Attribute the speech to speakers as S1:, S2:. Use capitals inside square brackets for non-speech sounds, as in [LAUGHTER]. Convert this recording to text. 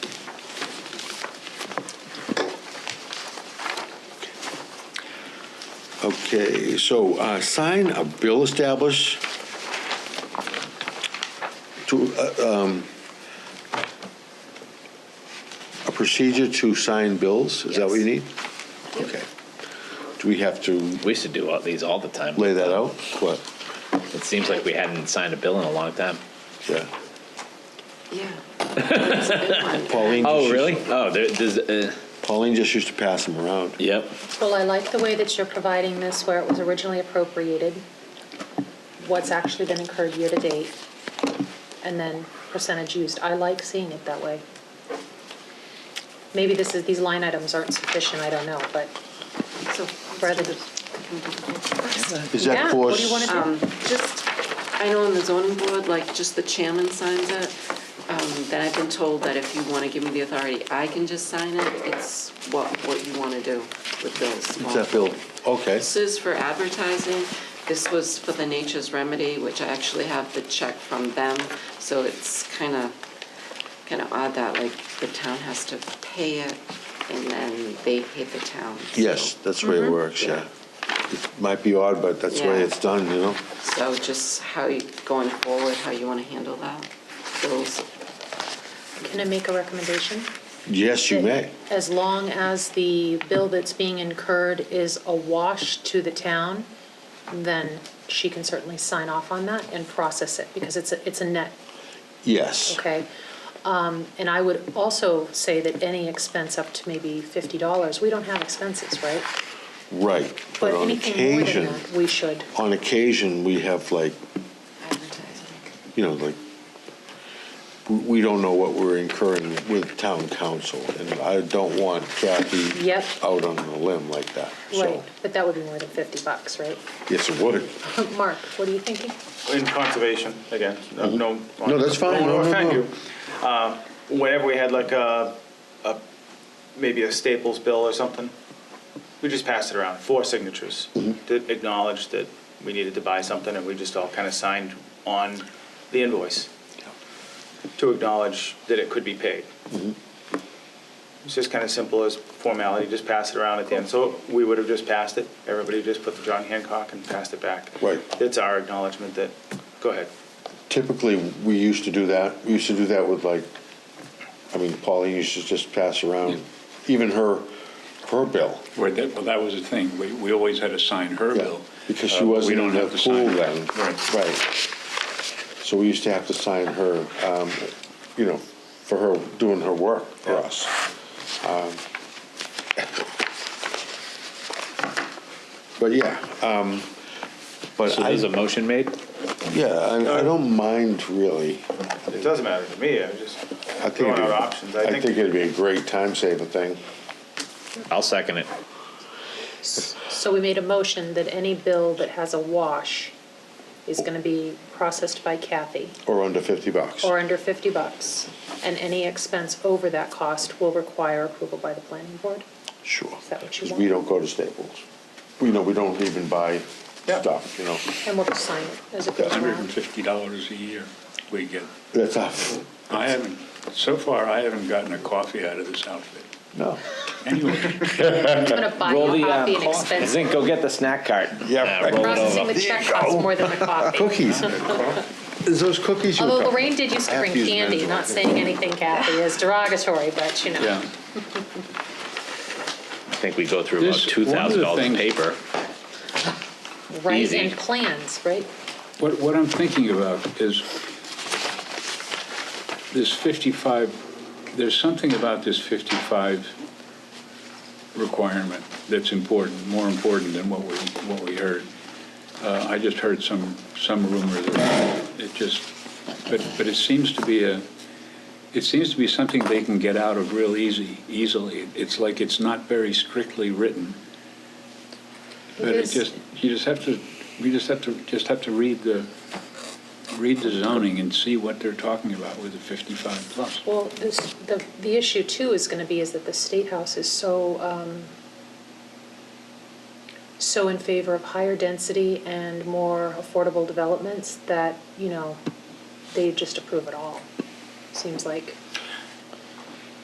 S1: Okay, so uh, sign a bill establish to, uh, um, a procedure to sign bills, is that what you need? Okay. Do we have to
S2: We used to do all these all the time.
S1: lay that out? What?
S2: It seems like we hadn't signed a bill in a long time.
S1: Yeah.
S3: Yeah. That's a good one.
S1: Pauline. just
S2: Oh,
S1: used-
S2: really? Oh, there, there's, uh,
S1: Pauline just used to pass them around.
S2: yep.
S4: Well, I like the way that you're providing this where it was originally appropriated, what's actually been incurred year-to-date, and then percentage used. I like seeing it that way. Maybe this is, these line items aren't sufficient, I don't know, but
S3: So,
S4: rather than,
S1: Is
S4: Yeah,
S1: that for?
S4: what do you wanna do?
S3: um, just, I know on the zoning board, like, just the chairman signs it. Um, Then I've been told that if you want to give me the authority, I can just sign it. It's what, what you want to do with those
S1: Is
S3: small.
S1: that bill? Okay.
S3: This is for advertising. This was for the Nature's Remedy, which I actually have the check from them. So it's kind of, kind of odd that, like, the town has to pay it and then they pay the town. so-
S1: Yes, that's the way it
S4: Mm-hmm.
S1: works, yeah. It Might be odd, but that's the way
S3: Yeah.
S1: it's done, you know?
S3: So just how you, going forward, how you want to handle that, those,
S4: can I make a recommendation?
S1: Yes, you may.
S4: As long as the bill that's being incurred is a wash to the town, then she can certainly sign off on that and process it, because it's a, it's a net
S1: Yes.
S4: Okay. Um, And I would also say that any expense up to maybe $50, we don't have expenses, right?
S1: Right. But
S4: But
S1: on
S4: anything more than
S1: occasion,
S4: that, we should.
S1: on occasion, we have like,
S3: advertising.
S1: you know, like, we- we don't know what we're incurring with town council. And I don't want Kathy
S4: Yep.
S1: out on a limb like that.
S4: Right,
S1: So,
S4: but that would be more than 50 bucks, right? [LAUGHS]
S1: yes, it would.
S4: Mark, what are you thinking?
S5: in conservation, again, no. No,
S1: Mm-hmm. No, that's fine.
S5: Don't
S1: No,
S5: wanna
S1: no,
S5: offend
S1: no.
S5: you. Um, Whenever we had like a, a, maybe a Staples bill or something, we just passed it around, four signatures. To acknowledge that we needed to buy something and we just all kind of signed on the invoice to acknowledge that it could be paid. It's just kind of simple as formality, just pass it around at the end. So we would have just passed it, everybody just put the John Hancock and passed it back.
S1: Right.
S5: It's our acknowledgement that, go ahead.
S1: Typically, we used to do that. We used to do that with like, I mean, Pauline used to just pass around, even her, her bill.
S6: Where that, well, that was the thing, we, we always had to sign her
S1: Yeah,
S6: bill.
S1: Because
S6: Uh,
S1: she
S6: but we
S1: wasn't
S6: don't
S1: in the
S6: have to sign
S1: pool then.
S6: Right.
S1: Right. So we used to have to sign her, um, you know, for her, doing her work for us. Um, But yeah, um, but
S2: So
S1: I,
S2: there's a motion made?
S1: yeah, I, I don't mind really.
S5: It doesn't matter to me, I just
S1: I think
S5: throwing
S1: it'd
S5: out
S1: be-
S5: options.
S1: I think it'd be a great time saver thing.
S2: I'll second it.
S4: So we made a motion that any bill that has a wash is going to be processed by Kathy
S1: Or under fifty bucks.
S4: or under 50 bucks, and any expense over that cost will require approval by the planning board.
S1: Sure.
S4: Is that what you
S1: Because we don't
S4: want?
S1: go to Staples. We know, we don't even buy
S5: Yeah.
S1: stuff, you know.
S4: And we'll just sign it as it goes
S6: Hundred and
S4: around.
S6: fifty dollars a year we get.
S1: That's us.
S6: I haven't, so far, I haven't gotten a coffee out of this outfit.
S1: No. [LAUGHS]
S6: Anyway,
S4: I'm going to buy you a copy and expense
S2: uh, Zink, go get the snack cart.
S1: Yeah.
S2: Uh, roll it
S4: Processing
S2: over.
S4: the check costs more than the coffee.
S1: [LAUGHS] Cookies. Is those cookies you
S4: Although
S1: got?
S4: Lorraine did used to
S1: I have
S4: bring
S1: to use
S4: candy,
S1: men's
S4: not
S1: wipes.
S4: saying anything, Kathy, is derogatory, but you know.
S6: yeah.
S2: I think we go through about
S6: This- one of the
S2: $2,000 in
S6: things-
S2: paper.
S4: Right,
S2: Easy.
S4: and plans, right?
S6: What, what I'm thinking about is this 55, there's something about this 55 requirement that's important, more important than what we, what we heard. Uh, I just heard some, some rumor that it just, but, but it seems to be a, it seems to be something they can get out of real easy, easily. It's like it's not very strictly written. But it
S4: is-
S6: just, you just have to, we just have to, just have to read the, read the zoning and see what they're talking about with the 55 plus.
S4: Well, this, the, the issue too is gonna be is that the State House is so, um, so in favor of higher density and more affordable developments that, you know, they just approve it all, seems like.